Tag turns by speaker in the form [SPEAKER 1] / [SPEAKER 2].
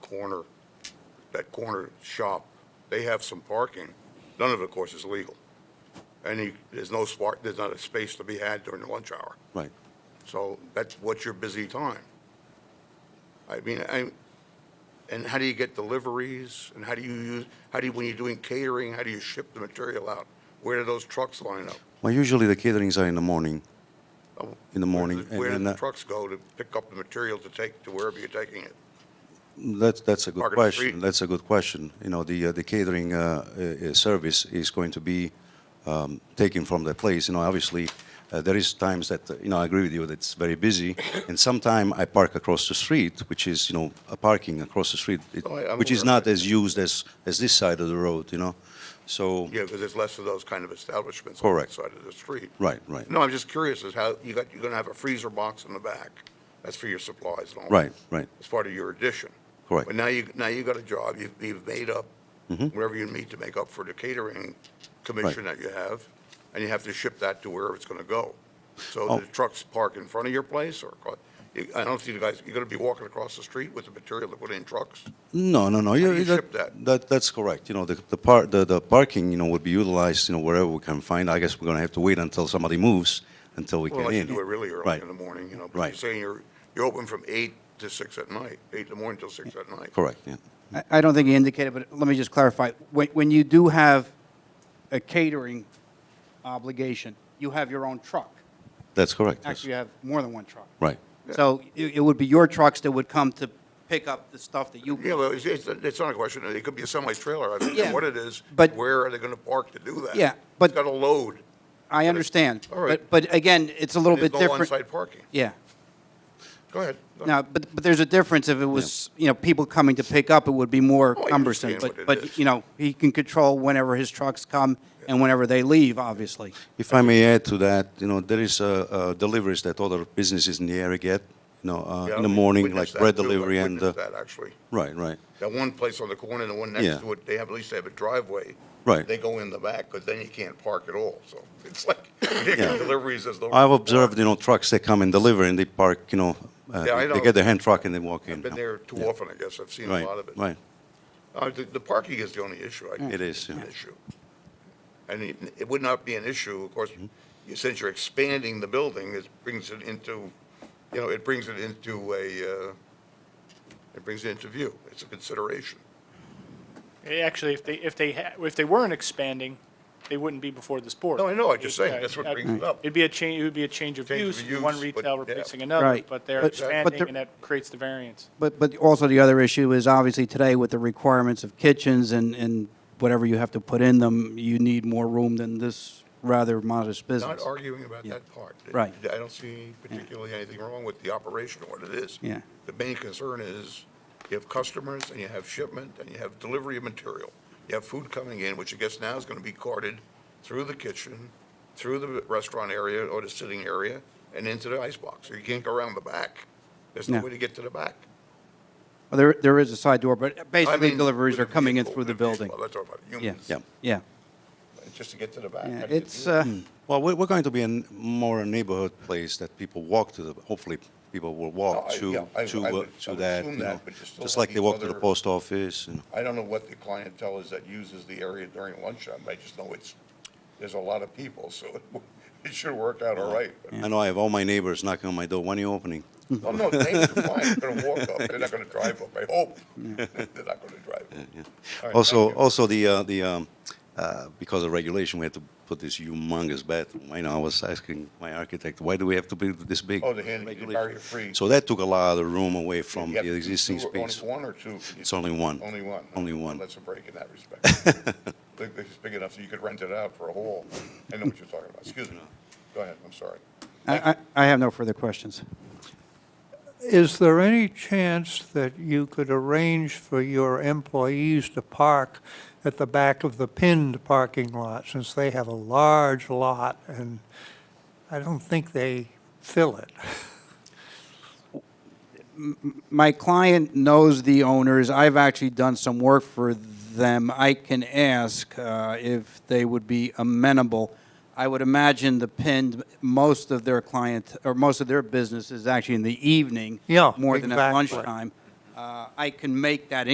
[SPEAKER 1] corner, that corner shop, they have some parking. None of it, of course, is legal. And you, there's no spark, there's not a space to be had during the lunch hour.
[SPEAKER 2] Right.
[SPEAKER 1] So that's what's your busy time. I mean, I, and how do you get deliveries? And how do you use, how do you, when you're doing catering, how do you ship the material out? Where do those trucks line up?
[SPEAKER 2] Well, usually the caterings are in the morning.
[SPEAKER 1] Oh,
[SPEAKER 2] In the morning,
[SPEAKER 1] where do-
[SPEAKER 2] and
[SPEAKER 1] Where do
[SPEAKER 2] then
[SPEAKER 1] the
[SPEAKER 2] that-
[SPEAKER 1] trucks go to pick up the material to take to wherever you're taking it?
[SPEAKER 2] That's, that's a good
[SPEAKER 1] Market and
[SPEAKER 2] question.
[SPEAKER 1] street.
[SPEAKER 2] That's a good question. You know, the, uh, the catering uh, uh, uh, service is going to be um, taken from the place. You know, obviously, uh, there is times that, uh, you know, I agree with you that it's very busy. And sometime I park across the street, which is, you know, a parking across the street, it-
[SPEAKER 1] Oh, I- I'm
[SPEAKER 2] which is
[SPEAKER 1] aware.
[SPEAKER 2] not as used as, as this side of the road, you know? So,
[SPEAKER 1] Yeah, because there's less of those kind of establishments on the
[SPEAKER 2] Correct.
[SPEAKER 1] side of the street.
[SPEAKER 2] right, right,
[SPEAKER 1] No, I'm just curious as how, you got, you're going to have a freezer box in the back. That's for your supplies and all. that.
[SPEAKER 2] right, right.
[SPEAKER 1] It's part of your addition.
[SPEAKER 2] Correct. Mm-hmm.
[SPEAKER 1] But now you, now you got a job, you've, you've made up whatever you need to make up for the catering commission that you have, and you have to ship that to wherever it's gonna go. So
[SPEAKER 2] Oh.
[SPEAKER 1] the trucks park in front of your place or, across- you- I don't see the guys, you're gonna be walking across the street with the material to put in trucks?
[SPEAKER 2] No, no, no.
[SPEAKER 1] do you ship that?
[SPEAKER 2] that's correct. You know, the the part the, the parking, you know, would be utilized, you know, wherever we can find. I guess we're gonna have to wait until somebody moves until we
[SPEAKER 1] Well,
[SPEAKER 2] get
[SPEAKER 1] unless you
[SPEAKER 2] in.
[SPEAKER 1] do it really early
[SPEAKER 2] Right.
[SPEAKER 1] in the morning, you know, but you're
[SPEAKER 2] Right.
[SPEAKER 1] saying you're, you're open from eight to six at night, eight in the morning till six at night.
[SPEAKER 2] Correct. Yeah.
[SPEAKER 3] I- I don't think he indicated, but let me just clarify. When, when you do have a catering obligation, you have your own truck.
[SPEAKER 2] That's correct. yes.
[SPEAKER 3] Actually, you have more than one truck.
[SPEAKER 2] Right.
[SPEAKER 3] So it, it would be your trucks that would come to pick up the stuff that you.
[SPEAKER 1] Yeah, well, it's, it's, it's not a question, it could be a semi-trailer, I don't know
[SPEAKER 3] Yeah,
[SPEAKER 1] what it is,
[SPEAKER 3] but-
[SPEAKER 1] where are they gonna park to do that?
[SPEAKER 3] Yeah, but-
[SPEAKER 1] It's got a load.
[SPEAKER 3] I understand.
[SPEAKER 1] All right.
[SPEAKER 3] But, but again, it's a little
[SPEAKER 1] There's
[SPEAKER 3] bit
[SPEAKER 1] no
[SPEAKER 3] different.
[SPEAKER 1] on-site parking.
[SPEAKER 3] Yeah.
[SPEAKER 1] Go ahead.
[SPEAKER 3] Now, but, but there's a difference if it was, you know, people coming to pick up, it would be more
[SPEAKER 1] Oh, I
[SPEAKER 3] cumbersome.
[SPEAKER 1] understand
[SPEAKER 3] But,
[SPEAKER 1] what it is.
[SPEAKER 3] but, you know, he can control whenever his trucks come and whenever they leave, obviously.
[SPEAKER 2] If I may add to that, you know, there is uh, uh, deliveries that other businesses in the area get, you know, uh,
[SPEAKER 1] Yeah,
[SPEAKER 2] in the
[SPEAKER 1] we
[SPEAKER 2] morning, like
[SPEAKER 1] witnessed
[SPEAKER 2] bread
[SPEAKER 1] that too. I
[SPEAKER 2] delivery and uh,
[SPEAKER 1] witnessed that, actually.
[SPEAKER 2] right, right,
[SPEAKER 1] That one place on the corner and the one next
[SPEAKER 2] Yeah.
[SPEAKER 1] to it, they have, at least they have a driveway.
[SPEAKER 2] Right.
[SPEAKER 1] They go in the back, because then you can't park at all, so it's like, you get deliveries as though.
[SPEAKER 2] I've observed, you know, trucks that come and deliver and they park, you know, uh,
[SPEAKER 1] Yeah, I
[SPEAKER 2] they
[SPEAKER 1] know.
[SPEAKER 2] get their hand truck and they walk in.
[SPEAKER 1] I've been
[SPEAKER 2] now.
[SPEAKER 1] there too
[SPEAKER 2] Yeah.
[SPEAKER 1] often, I guess, I've seen a
[SPEAKER 2] Right,
[SPEAKER 1] lot of it.
[SPEAKER 2] right.
[SPEAKER 1] Uh, the, the parking is the only issue, I guess.
[SPEAKER 2] It is, yeah.
[SPEAKER 1] An Issue. And it, it would not be an issue, of course,
[SPEAKER 2] Mm-hmm.
[SPEAKER 1] you- since you're expanding the building, it brings it into, you know, it brings it into a, uh, it brings it into view. It's a consideration.
[SPEAKER 4] They Eh, Actually, if they, if they, ha- if they weren't expanding, they wouldn't be before this board.
[SPEAKER 1] No, I know, I'm just saying,
[SPEAKER 4] Yeah,
[SPEAKER 1] that's what
[SPEAKER 4] uh,
[SPEAKER 1] brings it up.
[SPEAKER 4] It'd be a change, it would be a change of
[SPEAKER 1] Change of
[SPEAKER 4] use, one
[SPEAKER 1] use, but-
[SPEAKER 4] retail
[SPEAKER 1] yeah.
[SPEAKER 4] replacing another,
[SPEAKER 3] Right.
[SPEAKER 4] but they're
[SPEAKER 3] But- but
[SPEAKER 4] expanding
[SPEAKER 3] there-
[SPEAKER 4] and that creates the variance.
[SPEAKER 3] But, but also the other issue is obviously today with the requirements of kitchens and, and whatever you have to put in them, you need more room than this rather modest
[SPEAKER 1] Not
[SPEAKER 3] business.
[SPEAKER 1] arguing about that part.
[SPEAKER 3] Right.
[SPEAKER 1] I don't see particularly anything wrong with the operation or what it is.
[SPEAKER 3] Yeah.
[SPEAKER 1] The main concern is you have customers and you have shipment and you have delivery of material. You have food coming in, which I guess now is going to be carted through the kitchen, through the restaurant area or the sitting area and into the icebox. So you can't go around the back. There's no
[SPEAKER 3] No.
[SPEAKER 1] way to get to the back.
[SPEAKER 3] Well, There, there is a side door, but
[SPEAKER 1] I
[SPEAKER 3] basically
[SPEAKER 1] mean,
[SPEAKER 3] deliveries
[SPEAKER 1] with
[SPEAKER 3] are
[SPEAKER 1] a
[SPEAKER 3] coming in
[SPEAKER 1] vehicle,
[SPEAKER 3] through the
[SPEAKER 1] with a vehicle.
[SPEAKER 3] building.
[SPEAKER 1] That's what I'm
[SPEAKER 3] Yeah,
[SPEAKER 1] talking about,
[SPEAKER 2] Yeah.
[SPEAKER 1] humans,
[SPEAKER 3] yeah.
[SPEAKER 1] just to get to the back.
[SPEAKER 3] Yeah,
[SPEAKER 1] How do you
[SPEAKER 3] It's,
[SPEAKER 1] do that?
[SPEAKER 3] uh,
[SPEAKER 2] Well, we're, we're going to be in more a neighborhood place that people walk to the, hopefully people will walk
[SPEAKER 1] No, Oh, I-
[SPEAKER 2] to,
[SPEAKER 1] yeah, I-
[SPEAKER 2] to,
[SPEAKER 1] I
[SPEAKER 2] uh,
[SPEAKER 1] would- I
[SPEAKER 2] to
[SPEAKER 1] would
[SPEAKER 2] that,
[SPEAKER 1] assume
[SPEAKER 2] you
[SPEAKER 1] that,
[SPEAKER 2] know,
[SPEAKER 1] but you still
[SPEAKER 2] just
[SPEAKER 1] have
[SPEAKER 2] like
[SPEAKER 1] these
[SPEAKER 2] they walk to the
[SPEAKER 1] other-
[SPEAKER 2] post office, you know.
[SPEAKER 1] I don't know what the clientele is that uses the area during lunchtime, I just know it's, there's a lot of people, so it- it should work out all right. But-
[SPEAKER 2] I know I have all my neighbors knocking on my door, when are you opening?
[SPEAKER 1] Oh, no, they're fine, they're gonna walk up, they're not gonna drive up, I hope. They're not gonna drive up. All right,
[SPEAKER 2] Also,
[SPEAKER 1] thank you.
[SPEAKER 2] also the, uh, the, um, uh, because of regulation, we had to put this humongous bathroom. I know, I was asking my architect, why do we have to be this big?
[SPEAKER 1] Oh, the hand-
[SPEAKER 2] Regulation.
[SPEAKER 1] barrier-free.
[SPEAKER 2] So that took a lot of the room away from
[SPEAKER 1] You have
[SPEAKER 2] the existing
[SPEAKER 1] two- only
[SPEAKER 2] space.
[SPEAKER 1] One or two?
[SPEAKER 2] It's only one.
[SPEAKER 1] Only one?
[SPEAKER 2] Only one.
[SPEAKER 1] That's a break in that respect. I think It's big enough so you could rent it out for a whole, I know what you're talking about, excuse me. Go ahead, I'm sorry.
[SPEAKER 3] I, I I have no further questions.
[SPEAKER 5] Is there any chance that you could arrange for your employees to park at the back of the pinned parking lot, since they have a large lot, and I don't think they fill it?
[SPEAKER 3] My client knows the owners. I've actually done some work for them. I can ask uh, if they would be amenable. I would imagine the pinned, most of their client, or most of their business is actually in the evening.
[SPEAKER 5] Yeah,
[SPEAKER 3] More than at
[SPEAKER 5] exactly.
[SPEAKER 3] lunchtime. Uh, uh, I can make that